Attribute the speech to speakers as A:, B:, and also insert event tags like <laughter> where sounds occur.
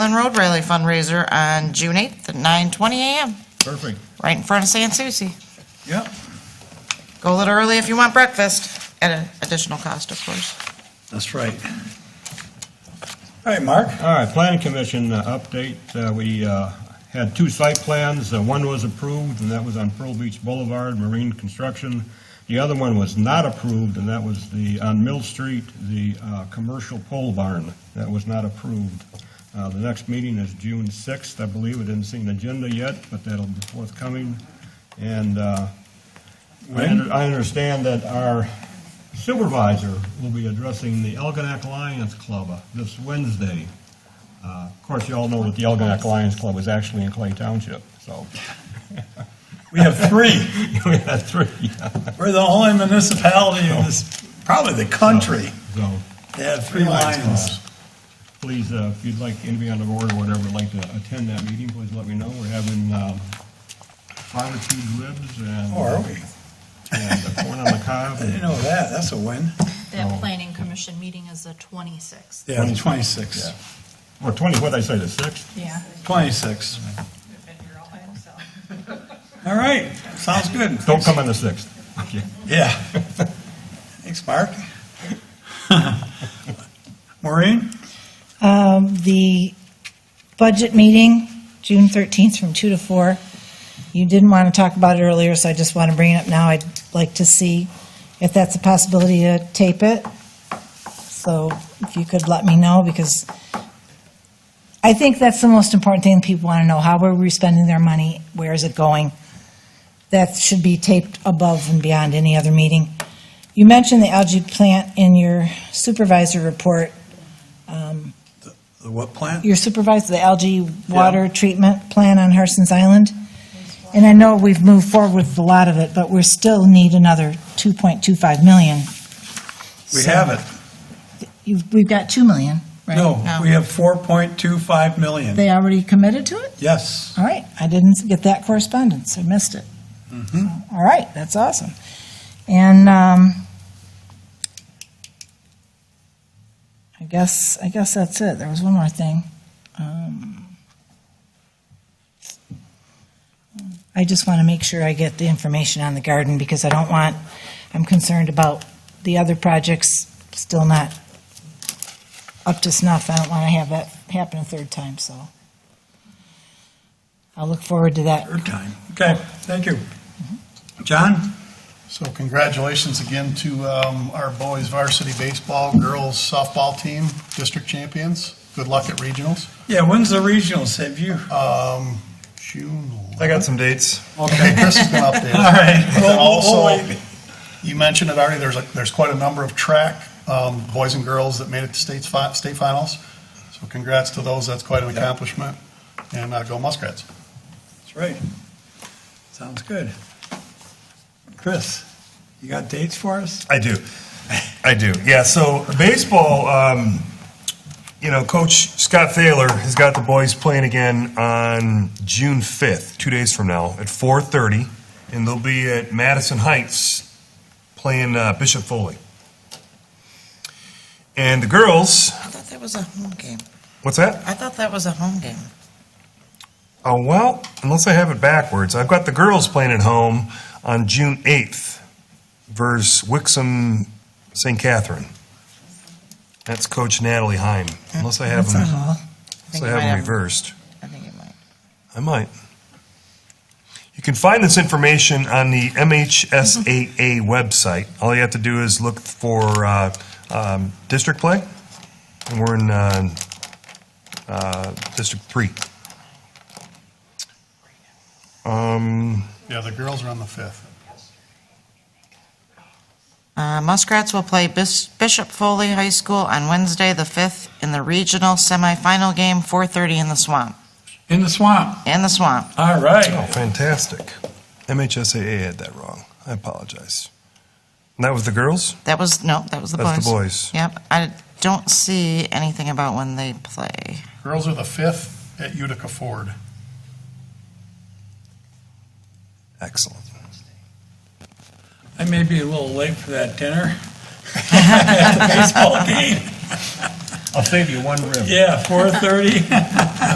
A: Lynn Road Rally fundraiser on June 8th at 9:20 a.m.,
B: Perfect.
A: right in front of San Souci.
B: Yep.
A: Go a little early if you want breakfast, at an additional cost, of course.
B: That's right. All right, Mark.
C: All right, planning commission uh, update, Uh, we uh, had two site plans, Uh, one was approved, and that was on Pearl Beach Boulevard, Marine Construction. The other one was not approved, and that was the, on Mill Street, the uh, commercial pole barn, that was not approved. Uh, The next meeting is June 6th, I believe, I didn't see an agenda yet, but that'll be forthcoming. And uh, I
B: When?
C: under- I understand that our supervisor will be addressing the Elginak Lions Club uh, this Wednesday. Uh, Of course, you all know that the Elginak Lions Club is actually in Clay Township, so <laughs>
B: We have three.
C: we had three.
B: We're the only municipality in this, probably the country,
C: So
B: that have three lions.
C: please, uh, if you'd like, anybody on the board or whatever would like to attend that meeting, please let me know. We're having um, barbecued ribs and.
B: Oh, are we?
C: And corn
B: <laughs>
C: on the cob.
B: I didn't know that. That's a win.
D: That planning commission meeting is the twenty-sixth.
B: Yeah, the 26.
C: Yeah. Or 20, what did I say, the 6th?
D: Yeah.
B: 26. All right, sounds good.
C: Don't come on the 6th. Okay.
B: Yeah. Thanks, Mark. Maureen?
E: Um, The budget meeting, June 13th, from 2 to 4. You didn't want to talk about it earlier, so I just want to bring it up now. I'd like to see if that's a possibility to tape it. So if you could let me know, because I think that's the most important thing people want to know. How are we spending their money? Where is it going? That should be taped above and beyond any other meeting. You mentioned the algae plant in your supervisor report
B: The what plant?
E: your supervisor, the algae water treatment plan on Harson's Island. And I know we've moved forward with a lot of it, but we still need another 2.25 million.
B: We have it.
E: You've, we've got 2 million, right?
B: No,
A: No.
B: we have 4.25 million.
E: They already committed to it?
B: Yes.
E: All right, I didn't get that correspondence, I missed it. So, All right, that's awesome. And, um, I guess, I guess that's it, there was one more thing. Um, I just want to make sure I get the information on the garden, because I don't want, I'm concerned about the other projects still not up to snuff, I don't want to have that happen a third time, so. I'll look forward to that.
B: Third time. Okay, thank you. John?
F: So congratulations again to um, our boys varsity baseball, girls softball team, district champions. Good luck at regionals.
B: Yeah, when's the regionals? Have you?
F: Um, June.
G: I got some dates.
F: Okay, Chris is going to update. us.
B: All right.
F: But
B: We'll-
F: then
B: we'll
F: also,
B: wait.
F: you mentioned it already, there's, a- there's quite a number of track um, boys and girls that made it to states, fi- state finals. So congrats to those, that's quite an accomplishment. And uh, go Muskrats.
B: That's right. Sounds good. Chris, you got dates for us?
G: I do. I do. Yeah. So baseball, um, you know, Coach Scott Thaler has got the boys playing again on June fifth, two days from now, at four thirty, and they'll be at Madison Heights playing uh, Bishop Foley. And the girls,
A: I thought that was a home game.
G: what's that?
A: I thought that was a home game.
G: Oh well, unless I have it backwards, I've got the girls playing at home on June eighth versus Wixom St. Catherine. That's Coach Natalie Heim. Unless I have
E: That's
G: them,
A: I
E: all.
G: unless
A: think
G: I
A: it might
G: have them
A: have-
G: reversed.
A: I think it might.
G: I might. You can find this information on the MHSAA website. All you have to do is look for uh, um, district play, and we're in uh, uh, District Three. Um,
F: Yeah, the girls are on the 5th.
A: Uh, Muskrats will play Bis- Bishop Foley High School on Wednesday, the 5th, in the regional semifinal game, 4:30 in the Swamp.
B: In the swamp.
A: In the Swamp.
B: All
G: oh,
B: right.
G: fantastic! MHSAA had that wrong. I apologize. And that was the girls.
A: That was, no, that was the boys.
G: That's the boys.
A: Yep. I don't see anything about when they play.
F: Girls are the 5th at Utica Ford.
G: Excellent.
B: I <laughs> may be a little late for that dinner. Baseball game.
C: I'll save you one rib.
B: Yeah, four thirty.